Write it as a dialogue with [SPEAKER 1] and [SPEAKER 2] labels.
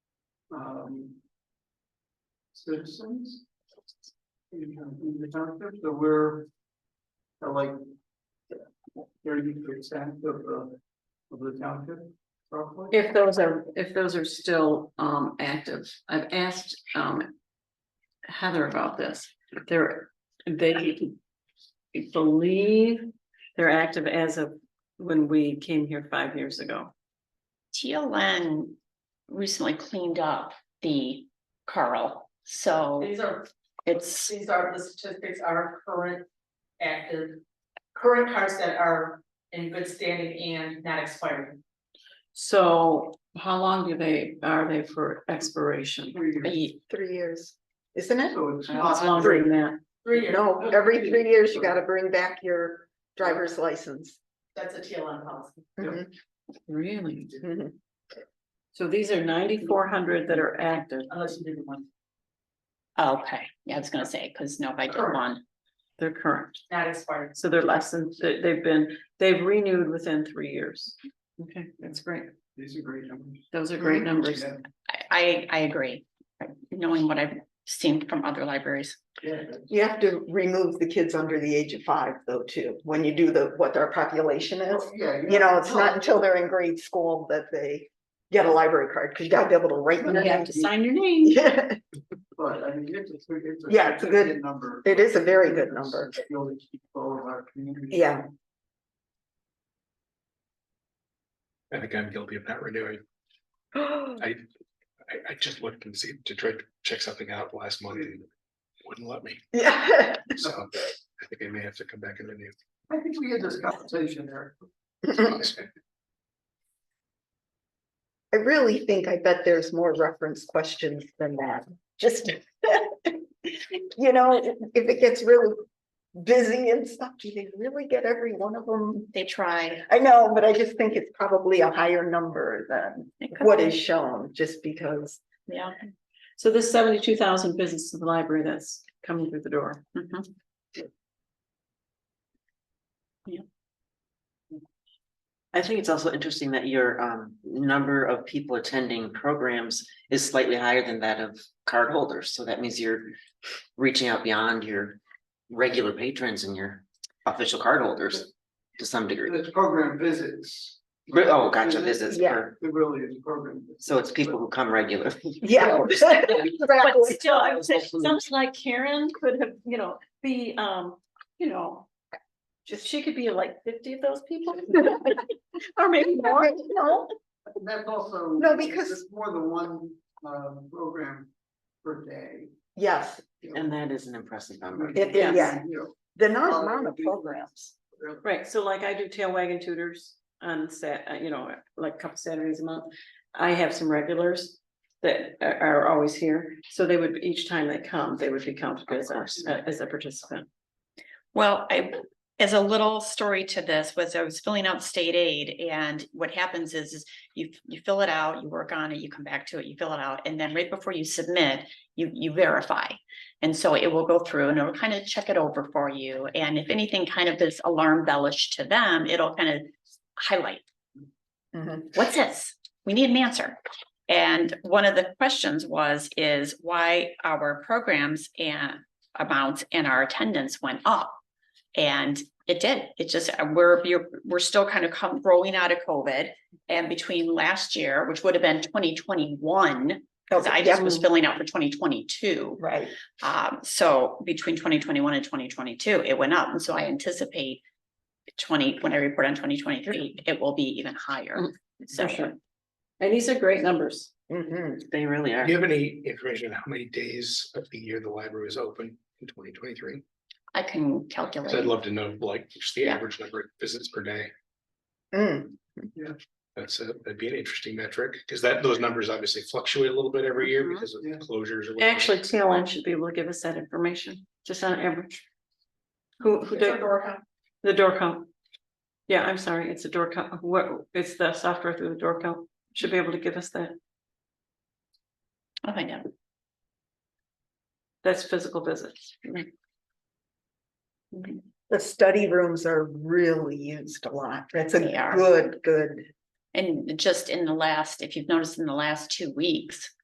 [SPEAKER 1] um. Citizens. In the- in the township, so we're. uh, Like. Thirty percent of the, of the township, roughly.
[SPEAKER 2] If those are, if those are still um active, I've asked um. Heather about this, they're, they believe they're active as of when we came here five years ago.
[SPEAKER 3] TLN recently cleaned up the Carl, so
[SPEAKER 4] These are,
[SPEAKER 3] it's,
[SPEAKER 4] these are, the statistics are current active, current cards that are in good standing and not expiring.
[SPEAKER 2] So how long do they, are they for expiration?
[SPEAKER 1] Three years.
[SPEAKER 3] ye-
[SPEAKER 5] Three years, isn't it?
[SPEAKER 1] So it's
[SPEAKER 2] Uh, It's
[SPEAKER 1] not,
[SPEAKER 2] longer than that.
[SPEAKER 4] Three years,
[SPEAKER 5] No, every three years you gotta bring back your driver's license.
[SPEAKER 4] that's a TLN policy.
[SPEAKER 5] Mhm,
[SPEAKER 2] Really?
[SPEAKER 4] Mm-hmm.
[SPEAKER 5] mhm.
[SPEAKER 2] So these are ninety-four hundred that are active.
[SPEAKER 4] Unless you do the one,
[SPEAKER 3] oh, okay, yeah, I was gonna say, because nobody did
[SPEAKER 4] Correct.
[SPEAKER 3] one.
[SPEAKER 2] They're current.
[SPEAKER 4] not expired.
[SPEAKER 2] So they're less than, they- they've been, they've renewed within three years. Okay, that's great.
[SPEAKER 1] these are great numbers.
[SPEAKER 2] Those are great numbers.
[SPEAKER 1] Yeah,
[SPEAKER 3] I, I, I agree, knowing what I've seen from other libraries.
[SPEAKER 1] yeah, that's-
[SPEAKER 5] You have to remove the kids under the age of five though too, when you do the, what their population is.
[SPEAKER 1] yeah,
[SPEAKER 5] You know, it's not until they're in grade school that they get a library card, because you gotta be able to write.
[SPEAKER 2] You
[SPEAKER 5] them.
[SPEAKER 2] have to sign your name.
[SPEAKER 5] Yeah,
[SPEAKER 1] But I mean, it's a, it's a.
[SPEAKER 5] Yeah, it's a good-
[SPEAKER 1] Number.
[SPEAKER 5] It is a very good number.
[SPEAKER 1] It's really keep all of our community.
[SPEAKER 5] Yeah.
[SPEAKER 6] I think I'm guilty of not renewing. I, I, I just looked and see, to try to check something out last month and wouldn't let me,
[SPEAKER 5] Yeah.
[SPEAKER 6] so I think I may have to come back and renew.
[SPEAKER 1] I think we had this conversation there.
[SPEAKER 5] I really think, I bet there's more reference questions than that, just. You know, if it gets really busy and stuff, do they really get every one of them?
[SPEAKER 3] They try.
[SPEAKER 5] I know, but I just think it's probably a higher number than
[SPEAKER 3] It could
[SPEAKER 5] what
[SPEAKER 3] be,
[SPEAKER 5] is shown, just because.
[SPEAKER 3] Yeah.
[SPEAKER 2] So this seventy-two thousand visits to the library that's coming through the door.
[SPEAKER 3] mhm.
[SPEAKER 7] I think it's also interesting that your um number of people attending programs is slightly higher than that of cardholders, so that means you're. Reaching out beyond your regular patrons and your official cardholders to some degree.
[SPEAKER 1] It's program visits.
[SPEAKER 7] Re- Oh, gotcha, visits,
[SPEAKER 5] Mm-hmm. Yeah.
[SPEAKER 7] per-
[SPEAKER 1] It really is program. visits.
[SPEAKER 7] so it's people who come regularly.
[SPEAKER 5] Yeah.
[SPEAKER 2] But
[SPEAKER 5] Exactly.
[SPEAKER 2] still, I would say, someone like Karen could have, you know, be, um, you know. Just, she could be like fifty of those people. Or maybe more.
[SPEAKER 5] No,
[SPEAKER 1] And That's also.
[SPEAKER 5] No, because-
[SPEAKER 1] It's more than one um program per day.
[SPEAKER 5] Yes,
[SPEAKER 1] you know.
[SPEAKER 7] And that is an impressive number.
[SPEAKER 5] it,
[SPEAKER 2] Yes.
[SPEAKER 5] yeah,
[SPEAKER 1] You know,
[SPEAKER 5] the amount of programs.
[SPEAKER 1] really.
[SPEAKER 2] Right, so like I do tail wagging tutors on Sat, uh, you know, like a couple Saturdays a month. I have some regulars that are, are always here, so they would, each time they come, they would be counted as, a- uh,
[SPEAKER 7] course.
[SPEAKER 2] as a participant.
[SPEAKER 3] Well, I, as a little story to this was I was filling out state aid and what happens is, is you, you fill it out, you work on it, you come back to it, you fill it out, and then right before you submit, you, you verify. And so it will go through and it'll kind of check it over for you. And if anything kind of is alarm bellish to them, it'll kind of highlight
[SPEAKER 5] Mhm.
[SPEAKER 3] what's this? We need an answer. And one of the questions was, is why our programs and amounts and our attendance went up? And it did. It just, we're, you're, we're still kind of come, growing out of COVID. And between last year, which would have been twenty twenty-one, because I
[SPEAKER 5] Okay,
[SPEAKER 3] just
[SPEAKER 5] yeah,
[SPEAKER 3] was filling out for twenty twenty-two.
[SPEAKER 5] Right.
[SPEAKER 3] Um, so between twenty twenty-one and twenty twenty-two, it went up, and so I anticipate twenty, when I report on twenty twenty-three, it will be even higher.
[SPEAKER 2] Mm,
[SPEAKER 3] So,
[SPEAKER 2] sure. And these are great numbers.
[SPEAKER 5] Mhm.
[SPEAKER 7] They really
[SPEAKER 6] Do
[SPEAKER 7] are.
[SPEAKER 6] you have any information on how many days of the year the library was open in twenty twenty-three?
[SPEAKER 3] I can
[SPEAKER 6] Cause I'd
[SPEAKER 3] calculate,
[SPEAKER 6] love to know, like, just the
[SPEAKER 3] Yeah.
[SPEAKER 6] average number of visits per day.
[SPEAKER 5] Mm,
[SPEAKER 6] That's a, that'd be an interesting metric, cause that, those numbers obviously fluctuate a little bit every year
[SPEAKER 2] Mhm.
[SPEAKER 6] because of
[SPEAKER 1] Yeah.
[SPEAKER 6] closures. or whatever.
[SPEAKER 2] Actually, TLN should be able to give us that information, just on average. Who, who
[SPEAKER 4] It's a
[SPEAKER 2] did
[SPEAKER 4] door count.
[SPEAKER 2] the door count? Yeah, I'm sorry, it's a door count, what, it's the software through the door count, should be able to give us that,
[SPEAKER 3] I'll find out.
[SPEAKER 2] that's physical visits.
[SPEAKER 5] The study rooms are really used a lot. That's a
[SPEAKER 3] They are.
[SPEAKER 5] good, good.
[SPEAKER 3] And just in the last, if you've noticed in the last two weeks,